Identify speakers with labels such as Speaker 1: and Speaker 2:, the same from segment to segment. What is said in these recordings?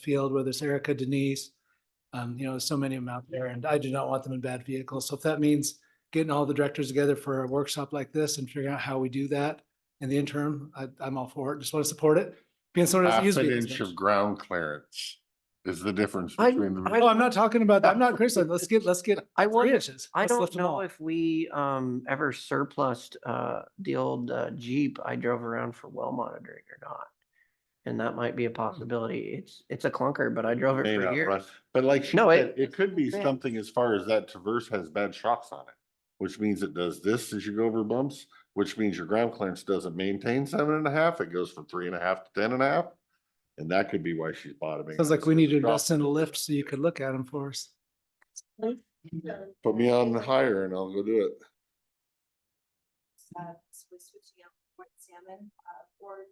Speaker 1: field, whether it's Erica, Denise, um, you know, so many of them out there, and I do not want them in bad vehicles. So if that means getting all the directors together for a workshop like this and figuring out how we do that in the interim, I, I'm all for it. Just want to support it. Being someone that's
Speaker 2: half
Speaker 1: used
Speaker 2: an
Speaker 1: vehicles
Speaker 2: inch
Speaker 1: much.
Speaker 2: of ground clearance is the difference
Speaker 3: I-
Speaker 2: between them.
Speaker 3: I-
Speaker 1: Oh, I'm not talking about, that. I'm not criticizing. Let's get, let's get
Speaker 3: I
Speaker 1: three
Speaker 3: wonder-
Speaker 1: inches.
Speaker 3: I
Speaker 1: Let's
Speaker 3: don't
Speaker 1: lift 'em
Speaker 3: know
Speaker 1: all.
Speaker 3: if we um ever surplused uh the old uh, Jeep I drove around for well monitoring or not. And that might be a possibility. It's it's a clunker, but I drove it
Speaker 2: May
Speaker 3: Hmm. for
Speaker 2: not
Speaker 3: years.
Speaker 2: run. But like she
Speaker 3: No,
Speaker 2: said,
Speaker 3: it-
Speaker 2: it could be
Speaker 3: yeah.
Speaker 2: something as far as that traverse has bad shocks on it. Which means it does this as you go over bumps, which means your ground clearance doesn't maintain seven and a half. It goes from three and a half to ten and a half. And that could be why she's bottoming.
Speaker 1: Sounds
Speaker 2: out.
Speaker 1: like we need to
Speaker 2: Drop-
Speaker 1: invest in a lift so you could look at them for us.
Speaker 2: Put me on higher and I'll go do it.
Speaker 4: uh, so we're switching out Ford Salmon, uh, Ford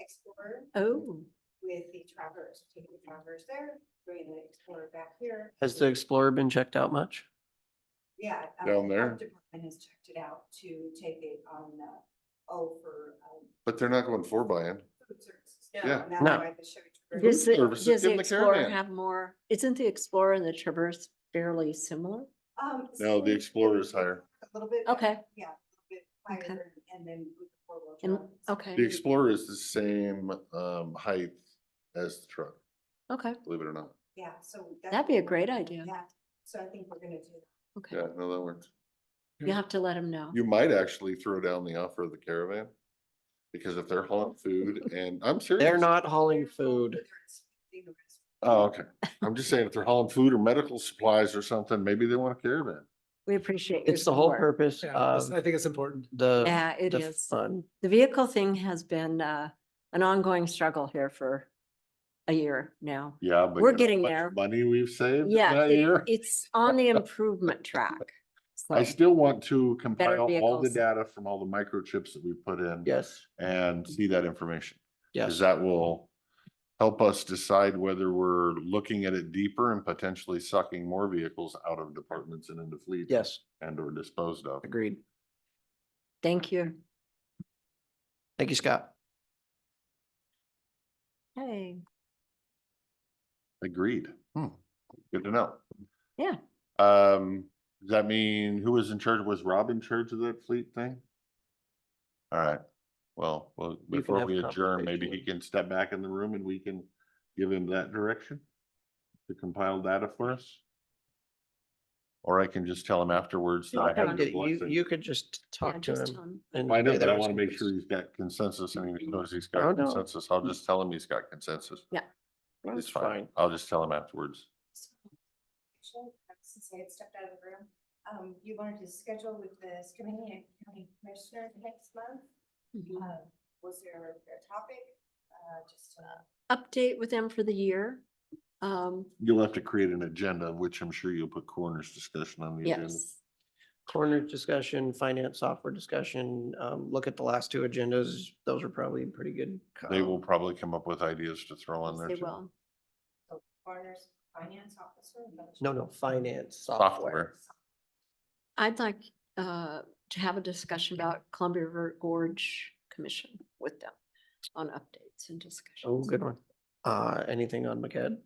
Speaker 4: Explorer
Speaker 5: Oh,
Speaker 4: with the Traverse, taking the Traverse there, bringing the Explorer back here.
Speaker 3: Has the Explorer been checked out much?
Speaker 4: Yeah. uh,
Speaker 2: Down
Speaker 4: the health
Speaker 2: there?
Speaker 4: Department has checked it out to take it on, uh, O for, um,
Speaker 2: But they're not going four by in.
Speaker 4: food services.
Speaker 2: Yeah.
Speaker 4: And that's
Speaker 3: No.
Speaker 4: why the Chevy
Speaker 5: does
Speaker 4: Traverse-
Speaker 5: the,
Speaker 2: services,
Speaker 5: does
Speaker 2: give
Speaker 5: the
Speaker 2: them the
Speaker 5: Explorer
Speaker 2: caravan.
Speaker 5: have more, isn't the Explorer and the Traverse fairly similar?
Speaker 4: Um,
Speaker 2: No, the
Speaker 4: so-
Speaker 2: Explorer is higher.
Speaker 4: A little bit.
Speaker 5: Okay,
Speaker 4: Yeah, a little bit
Speaker 5: Okay.
Speaker 4: higher, and then with the four-wheel
Speaker 5: and,
Speaker 4: drive. it's
Speaker 2: The
Speaker 5: okay,
Speaker 2: Explorer is the same um height as the truck,
Speaker 5: okay.
Speaker 2: believe it or not.
Speaker 4: Yeah, so. that's
Speaker 5: That'd be a
Speaker 4: what we're
Speaker 5: great
Speaker 4: gonna-
Speaker 5: idea.
Speaker 4: Yeah, so I think we're gonna do that.
Speaker 5: Okay,
Speaker 2: Yeah, no, that works.
Speaker 5: you have to let him know.
Speaker 2: You might actually throw down the offer of the caravan. Because if they're hauling food and I'm serious.
Speaker 3: They're not hauling food.
Speaker 4: Whether it's the rest-
Speaker 2: Oh, okay. I'm just saying, if they're hauling food or medical supplies or something, maybe they want a caravan.
Speaker 5: We appreciate your
Speaker 3: It's the whole
Speaker 5: support.
Speaker 3: purpose
Speaker 1: Yeah, that's-
Speaker 3: of
Speaker 1: I think it's important.
Speaker 3: the
Speaker 5: Yeah, it
Speaker 3: the
Speaker 5: is.
Speaker 3: fund.
Speaker 5: The vehicle thing has been, uh, an ongoing struggle here for a year now.
Speaker 2: Yeah. but
Speaker 5: We're
Speaker 2: you know how
Speaker 5: getting
Speaker 2: much
Speaker 5: there.
Speaker 2: Money we've saved. in
Speaker 5: Yeah,
Speaker 2: that year?
Speaker 5: it- it's on the improvement track.
Speaker 2: I
Speaker 5: So,
Speaker 2: still want to compile all the
Speaker 5: vehicles.
Speaker 2: data from all the microchips that we put in.
Speaker 3: Yes,
Speaker 2: And see that information. Cause
Speaker 3: yes.
Speaker 2: that will help us decide whether we're looking at it deeper and potentially sucking more vehicles out of departments and into fleets.
Speaker 3: Yes,
Speaker 2: And or disposed of.
Speaker 3: agreed.
Speaker 5: thank you.
Speaker 3: Thank you, Scott.
Speaker 5: Hey,
Speaker 2: Agreed. Hmm. Good to know.
Speaker 5: Yeah.
Speaker 2: Um, does that mean who was in charge? Was Rob in charge of that fleet thing? All right. Well, well,
Speaker 3: can
Speaker 2: before
Speaker 3: have
Speaker 2: we
Speaker 3: a
Speaker 2: adjourn, maybe he
Speaker 3: conversation.
Speaker 2: can step back in the room and we can give him that direction to compile data for us. Or I can just tell him afterwards that I
Speaker 5: No,
Speaker 2: have
Speaker 5: no,
Speaker 2: your
Speaker 3: You,
Speaker 2: blessing.
Speaker 3: you could just
Speaker 5: yeah,
Speaker 3: talk to
Speaker 5: just
Speaker 3: him.
Speaker 5: tell him.
Speaker 3: and
Speaker 2: I know,
Speaker 3: say
Speaker 2: but
Speaker 3: there
Speaker 2: I
Speaker 3: was
Speaker 2: want to make
Speaker 3: concerns.
Speaker 2: sure he's got consensus and he knows he's
Speaker 3: Oh,
Speaker 2: got
Speaker 3: no.
Speaker 2: consensus. I'll just tell him he's got consensus.
Speaker 3: That's
Speaker 2: It's fine. I'll just tell him afterwards.
Speaker 4: Actually, Since I had stepped out of the room, um, you wanted to schedule with this committee and county commissioner next month?
Speaker 5: Mhm.
Speaker 4: Uh, was there a topic, uh, just, uh,
Speaker 5: Update with them for the year. Um,
Speaker 2: You'll have to create an agenda, which I'm sure you'll put coroner's discussion on the agenda.
Speaker 5: yes.
Speaker 3: Corner discussion, finance software discussion, um, look at the last two agendas. Those are probably pretty good.
Speaker 2: They
Speaker 3: um,
Speaker 2: will probably come up with ideas to throw on
Speaker 5: Yes,
Speaker 2: there.
Speaker 5: They
Speaker 2: too.
Speaker 5: will.
Speaker 4: coroner's finance officer?
Speaker 3: No, no, finance,
Speaker 2: Software.
Speaker 3: software.
Speaker 5: I'd like uh, to have a discussion about Columbia River Gorge Commission with them on updates and discussions.
Speaker 3: Oh, good one. Uh, anything on McCad?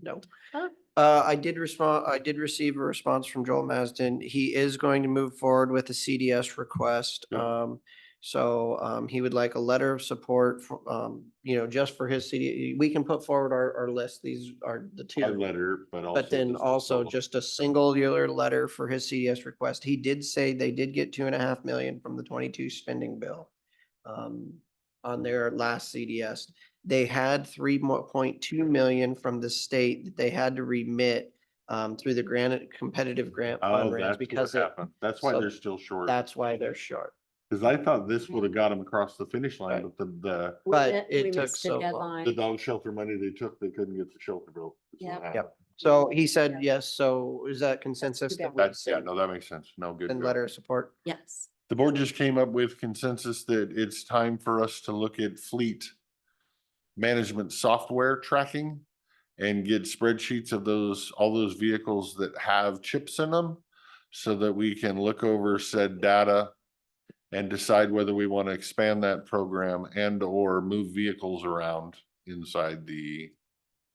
Speaker 3: No.
Speaker 5: Huh?
Speaker 3: Uh, I did respond, I did receive a response from Joel Masden. He is going to move forward with a CDS request.
Speaker 2: Good.
Speaker 3: Um, so, um, he would like a letter of support for, um, you know, just for his CD. We can put forward our, our list. These are the tier.
Speaker 2: A letter, but also.
Speaker 3: But then
Speaker 2: just a
Speaker 3: also
Speaker 2: total.
Speaker 3: just a singular letter for his CDS request. He did say they did get two and a half million from the twenty-two spending bill. Um, on their last CDS. They had three more point two million from the state that they had to remit. Um, through the granite competitive grant
Speaker 2: Oh,
Speaker 3: fundraise
Speaker 2: that's what
Speaker 3: because it-
Speaker 2: happened. That's why
Speaker 3: so
Speaker 2: they're still short.
Speaker 3: that's why they're short.
Speaker 2: Cause I thought this
Speaker 5: Mm-hmm.
Speaker 2: would have got them across the finish line,
Speaker 3: Right.
Speaker 2: but the,
Speaker 5: We
Speaker 3: but
Speaker 5: met-
Speaker 3: it
Speaker 5: we
Speaker 3: took
Speaker 5: missed the
Speaker 3: so long.
Speaker 2: the, the
Speaker 5: deadline.
Speaker 2: dog shelter money they took, they couldn't get the shelter built. is what
Speaker 5: Yep.
Speaker 2: happened.
Speaker 3: Yep. So he said,
Speaker 5: Yeah.
Speaker 3: yes, so is that consensus?
Speaker 5: bad.
Speaker 3: that we
Speaker 2: That's, yeah,
Speaker 3: send-
Speaker 2: no, that makes sense. No, good.
Speaker 3: Send
Speaker 2: good.
Speaker 3: letter of support?
Speaker 5: Yes.
Speaker 2: The board just came up with consensus that it's time for us to look at fleet management software tracking and get spreadsheets of those, all those vehicles that have chips in them so that we can look over said data and decide whether we want to expand that program and or move vehicles around inside the